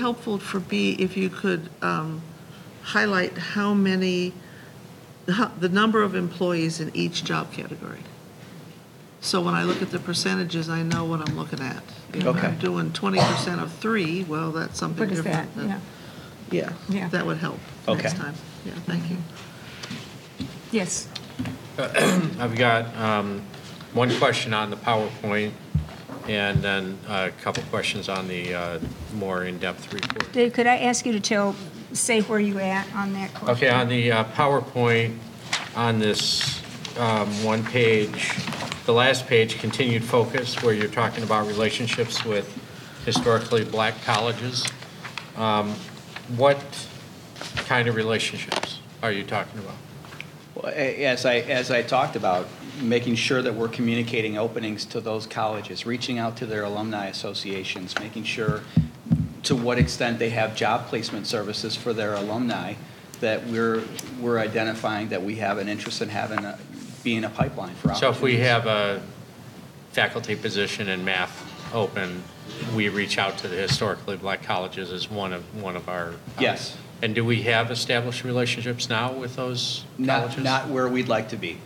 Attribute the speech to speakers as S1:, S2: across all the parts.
S1: Helpful for B, if you could um, highlight how many, how- the number of employees in each job category. So when I look at the percentages, I know what I'm looking at. If
S2: Okay.
S1: I'm doing 20% of three, well, that's something
S3: What is that?
S1: different.
S3: Yeah,
S1: than- Yeah.
S3: Yeah.
S1: that would help
S2: Okay.
S1: next time. Yeah, thank you.
S3: yes.
S4: I've got um, one question on the PowerPoint and then a couple questions on the uh, more in-depth report.
S3: Dave, could I ask you to tell, say where you at on that
S4: Okay,
S3: question?
S4: on the uh, PowerPoint, on this um, one page, the last page, continued focus, where you're talking about relationships with historically black colleges. Um, What kind of relationships are you talking about?
S2: Well, a- As I, as I talked about, making sure that we're communicating openings to those colleges, reaching out to their alumni associations, making sure to what extent they have job placement services for their alumni, that we're, we're identifying that we have an interest in having, a- being a pipeline for
S4: So if
S2: opportunities.
S4: we have a faculty position in math open, we reach out to the historically black colleges as one of, one of our. uh,
S2: Yes.
S4: And do we have established relationships now with those
S2: Not,
S4: colleges?
S2: not where we'd like to be.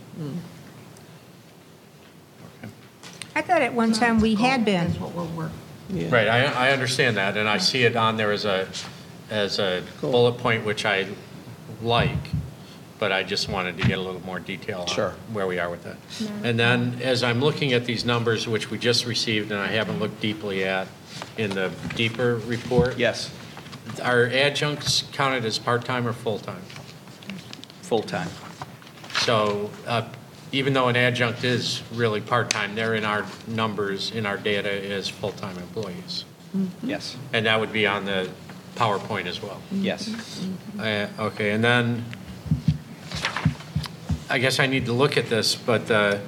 S3: I thought at one time we had been.
S4: Right, I, I understand that, and I see it on there as a, as a bullet point, which I like, but I just wanted to get a little more detail
S2: Sure.
S4: on where we are with that. And then, as I'm looking at these numbers, which we just received, and I haven't looked deeply at in the deeper report.
S2: Yes,
S4: Are adjuncts counted as part-time or full-time?
S2: full-time.
S4: So uh, even though an adjunct is really part-time, they're in our numbers, in our data as full-time employees.
S2: Yes,
S4: And that would be on the PowerPoint as well.
S2: yes.
S4: Uh, Okay, and then, I guess I need to look at this, but uh,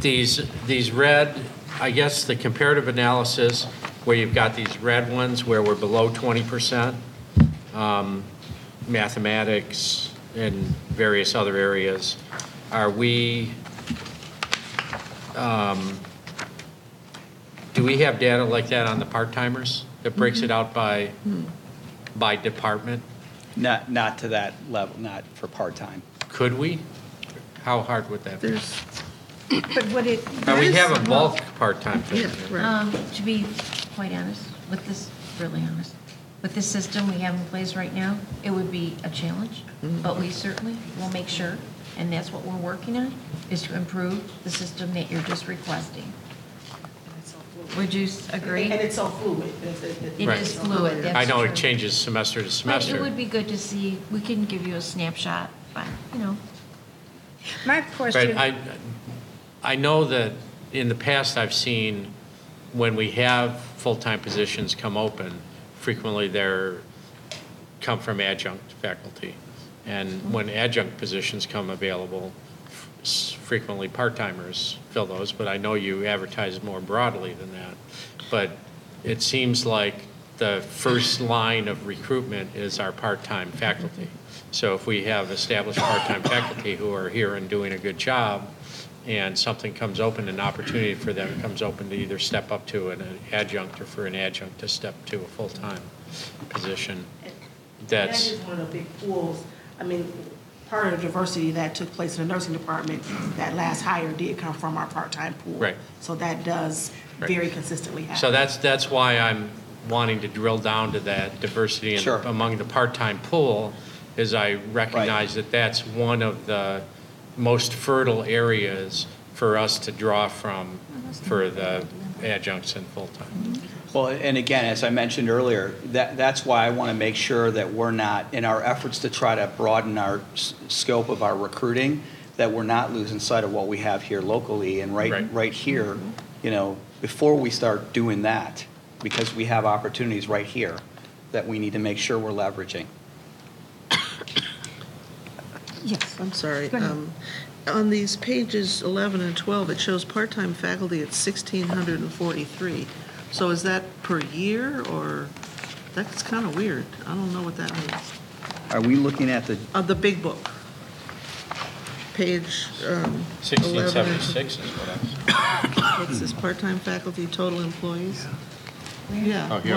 S4: these, these red, I guess the comparative analysis, where you've got these red ones where we're below 20%, um, mathematics and various other areas, are we, um, do we have data like that on the part-timers that breaks it out by? by department?
S2: Not, not to that level, not for part-time.
S4: Could we? How hard would that be?
S1: There's,
S3: But what it,
S4: And we have a bulk part-time
S1: yeah,
S4: thing.
S1: right.
S5: Um, to be quite honest, with this, really honest, with this system we have in place right now, it would be a challenge, but we certainly will make sure, and that's what we're working on, is to improve the system that you're just requesting. Would you s- agree?
S6: And it's so fluid. It's- it- it-
S5: It
S4: Right.
S5: is fluid, that's
S4: I know it
S5: true.
S4: changes semester to
S5: But it
S4: semester.
S5: would be good to see, we can give you a snapshot, but, you know,
S3: my
S4: But
S3: question,
S4: I, I know that in the past, I've seen when we have full-time positions come open, frequently they're, come from adjunct faculty. And when adjunct positions come available, s- frequently part-timers fill those, but I know you advertise more broadly than that. But it seems like the first line of recruitment is our part-time faculty. So if we have established part-time faculty who are here and doing a good job, and something comes open, an opportunity for them comes open to either step up to an adjunct or for an adjunct to step to a full-time position, that's.
S6: That is one of the big pools. I mean, part of the diversity that took place in the nursing department, that last hire did come from our part-time pool.
S4: Right.
S6: So that does
S4: Right.
S6: very consistently happen.
S4: So that's, that's why I'm wanting to drill down to that diversity in-
S2: Sure.
S4: among the part-time pool, is I recognize that that's one of the most fertile areas for us to draw from for the adjuncts and full-time.
S2: Well, and again, as I mentioned earlier, that, that's why I want to make sure that we're not, in our efforts to try to broaden our s- scope of our recruiting, that we're not losing sight of what we have here locally and right,
S4: Right.
S2: right here, you know, before we start doing that, because we have opportunities right here that we need to make sure we're leveraging.
S3: yes,
S1: I'm sorry.
S3: Go ahead.
S1: um, On these pages 11 and 12, it shows part-time faculty at 1,643. So is that per year, or, that's kind of weird. I don't know what that means.
S2: Are we looking at the,
S1: Uh, The big book, page um, 11.
S4: 1676 is what I was,
S1: What's this, part-time faculty, total employees?
S7: Where?
S8: yeah.
S1: Oh, here.